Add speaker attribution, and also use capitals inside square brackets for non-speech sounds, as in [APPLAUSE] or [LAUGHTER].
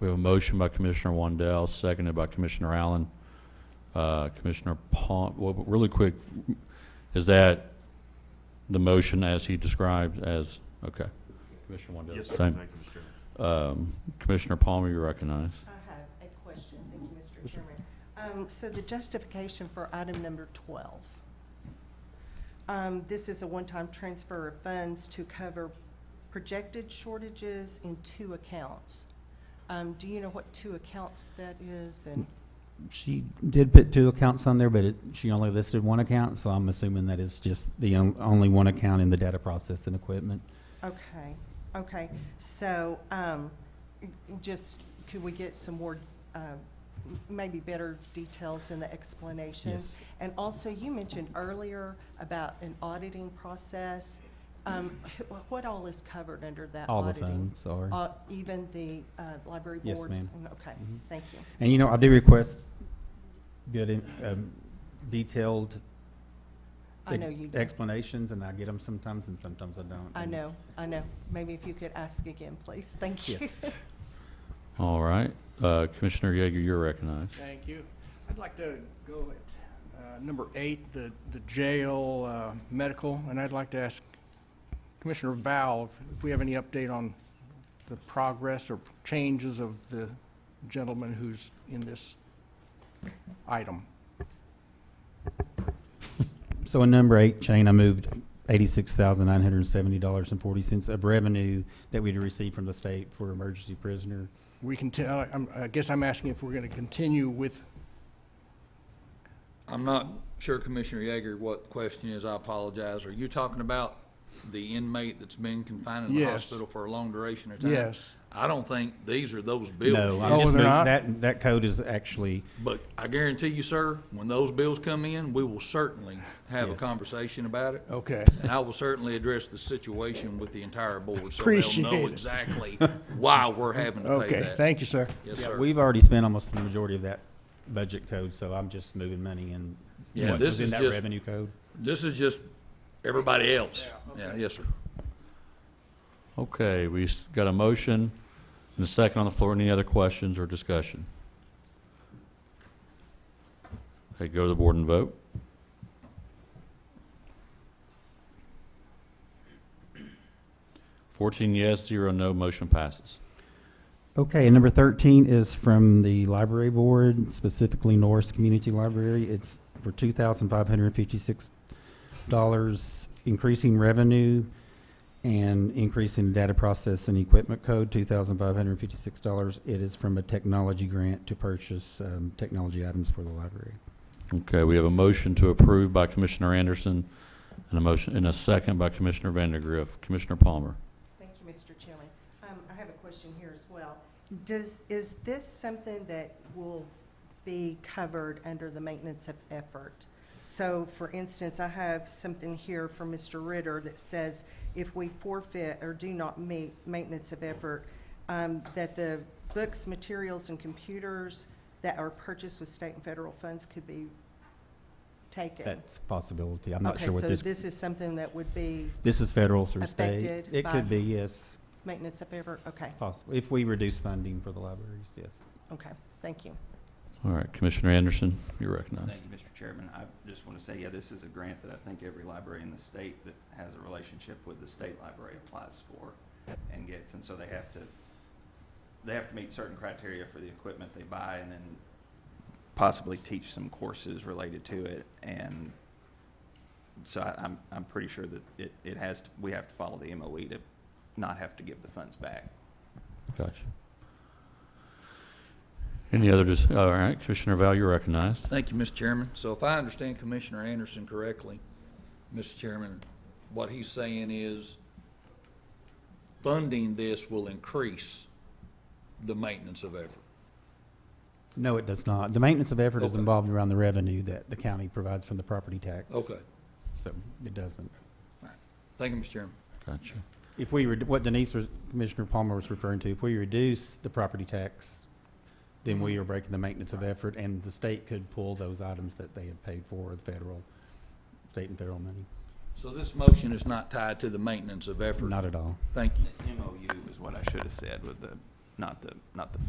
Speaker 1: We have a motion by Commissioner Wandell, seconded by Commissioner Allen. Uh, Commissioner Pond, well, but really quick, is that the motion as he described as, okay. Commissioner Wandell,
Speaker 2: Yes, sir.
Speaker 1: same.
Speaker 2: Thank you, Mr. Chairman.
Speaker 1: Um, Commissioner Palmer, you recognize.
Speaker 3: I have a question, thank you, Mr. Chairman. Um, So the justification for item number 12, um, this is a one-time transfer of funds to cover projected shortages in two accounts. Um, Do you know what two accounts that is? And
Speaker 4: She did put two accounts on there, but it, she only listed one account, so I'm assuming that is just the on- only one account in the data processing equipment.
Speaker 3: Okay, okay, so, um, just, could we get some more, um, maybe better details in the explanation?
Speaker 4: Yes.
Speaker 3: And also, you mentioned earlier about an auditing process. Um, wh- What all is covered under that
Speaker 4: All the
Speaker 3: auditing?
Speaker 4: phones are.
Speaker 3: Uh, Even the uh, library
Speaker 4: Yes,
Speaker 3: boards?
Speaker 4: ma'am.
Speaker 3: Mm, Okay,
Speaker 4: Mhm.
Speaker 3: thank you.
Speaker 4: And you know, I do request good, in- um, detailed.
Speaker 3: I know you do.
Speaker 4: Explanations, and I get them sometimes and sometimes I don't.
Speaker 3: I
Speaker 4: and-
Speaker 3: know, [LAUGHS] I know. Maybe if you could ask again, please. Thank you.
Speaker 4: Yes.
Speaker 1: All right, Uh, Commissioner Yeager, you're recognized.
Speaker 5: Thank you. I'd like to go at uh, number eight, the the jail uh, medical, and I'd like to ask Commissioner Val if- if we have any update on the progress or changes of the gentleman who's in this item.
Speaker 4: So in number eight, Shane, I moved eighty-six thousand nine hundred and seventy dollars and forty cents of revenue that we'd received from the state for emergency prisoner.
Speaker 5: We can tell, I'm- I guess I'm asking if we're going to continue with,
Speaker 6: I'm not sure, Commissioner Yeager, what the question is. I apologize. Are you talking about the inmate that's been confined in the
Speaker 5: Yes.
Speaker 6: hospital for a long duration of time?
Speaker 5: yes.
Speaker 6: I don't think these are those bills
Speaker 4: No, I'm
Speaker 5: Oh,
Speaker 6: yet.
Speaker 4: just
Speaker 5: they're
Speaker 4: moving,
Speaker 5: not?
Speaker 4: that, that code is actually,
Speaker 6: But I guarantee you, sir, when those bills come in, we will certainly have a
Speaker 4: Yes.
Speaker 6: conversation about it.
Speaker 5: Okay.
Speaker 6: And I will certainly address the situation with the entire board, so they'll
Speaker 5: Appreciate
Speaker 6: know
Speaker 5: it.
Speaker 6: exactly why we're having to pay that.
Speaker 5: Okay, thank you, sir.
Speaker 6: Yes,
Speaker 4: yeah,
Speaker 6: sir.
Speaker 4: we've already spent almost the majority of that budget code, so I'm just moving money in.
Speaker 6: Yeah,
Speaker 4: what
Speaker 6: this
Speaker 4: was in
Speaker 6: is
Speaker 4: that
Speaker 6: just-
Speaker 4: Revenue code.
Speaker 6: This is just everybody else. Yeah, yes, sir.
Speaker 1: Okay, we s- got a motion and a second on the floor. Any other questions or discussion? Okay, go to the board and vote. Fourteen yes, zero no, motion passes.
Speaker 4: Okay, and number thirteen is from the library board, specifically Norris Community Library. It's for two thousand five hundred and fifty-six dollars, increasing revenue and increasing data process and equipment code, two thousand five hundred and fifty-six dollars. It is from a technology grant to purchase, um, technology items for the library.
Speaker 1: Okay, we have a motion to approve by Commissioner Anderson and a motion, and a second by Commissioner Vandergriff. Commissioner Palmer.
Speaker 3: Thank you, Mr. Chairman. Um, I have a question here as well. Does, is this something that will be covered under the maintenance of effort? So, for instance, I have something here from Mr. Ritter that says if we forfeit or do not meet maintenance of effort, um, that the books, materials, and computers that are purchased with state and federal funds could be taken.
Speaker 4: That's a possibility. I'm not sure what
Speaker 3: Okay,
Speaker 4: this,
Speaker 3: so this is something that would be
Speaker 4: this is federal through state.
Speaker 3: affected
Speaker 4: It
Speaker 3: by-
Speaker 4: could be, yes,
Speaker 3: maintenance of effort? Okay,
Speaker 4: possible, if we reduce funding for the libraries, yes.
Speaker 3: okay, thank you.
Speaker 1: All right, Commissioner Anderson, you're recognized.
Speaker 7: Thank you, Mr. Chairman. I just want to say, yeah, this is a grant that I think every library in the state that has a relationship with the state library applies for and gets, and so they have to, they have to meet certain criteria for the equipment they buy and then possibly teach some courses related to it. And so I, I'm, I'm pretty sure that it, it has, to- we have to follow the MOE to not have to give the funds back.
Speaker 1: Gotcha. Any other, dis- all right, Commissioner Val, you're recognized.
Speaker 6: Thank you, Mr. Chairman. So if I understand Commissioner Anderson correctly, Mr. Chairman, what he's saying is funding this will increase the maintenance of effort.
Speaker 4: No, it does not. The maintenance of effort is
Speaker 6: Okay.
Speaker 4: involved around the revenue that the county provides from the property tax.
Speaker 6: Okay.
Speaker 4: So it doesn't.
Speaker 6: Thank you, Mr. Chairman.
Speaker 1: Gotcha.
Speaker 4: If we, redu- what Denise, was- Commissioner Palmer was referring to, if we reduce the property tax, then we are breaking the maintenance of effort, and the state could pull those items that they had paid for, the federal, state and federal money.
Speaker 6: So this motion is not tied to the maintenance of effort?
Speaker 4: Not at all.
Speaker 6: Thank you.
Speaker 7: The MOU is what I should have said with the, not the, not the